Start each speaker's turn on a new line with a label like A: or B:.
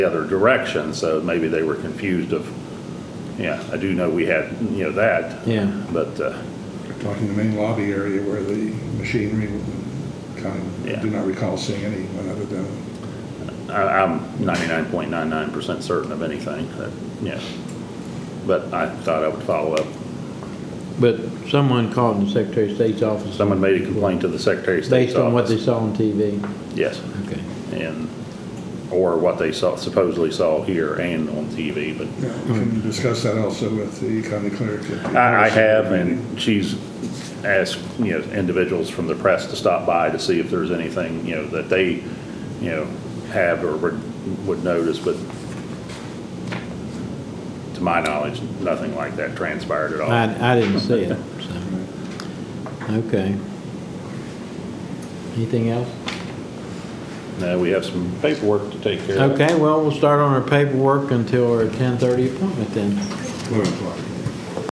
A: the other direction, so maybe they were confused of, yeah, I do know we had, you know, that.
B: Yeah.
A: But, uh,
C: They're Talking the main lobby area where the machinery kind of, I
A: Yeah.
C: do not recall seeing anyone other than,
A: I- I'm 99.99% certain of anything, that, yeah. But I thought I would follow up.
B: But someone called in the Secretary of State's office.
A: Someone made a complaint to the Secretary of State's
B: Based on what they
A: office.
B: saw on TV.
A: Yes,
B: Okay.
A: and, or what they saw, supposedly saw here and on TV, but
C: yeah, can you discuss that also with the county clerk? at the-
A: I, I have, and she's asked, you know, individuals from the press to stop by to see if there's anything, you know, that they, you know, have or would, would notice, but to my knowledge, nothing like that transpired at all.
B: I, I didn't see it, so, okay. Anything else?
A: No, we have some paperwork to take care of.
B: Okay, well, we'll start on our paperwork until our 10:30 appointment then.
C: Eleven o'clock.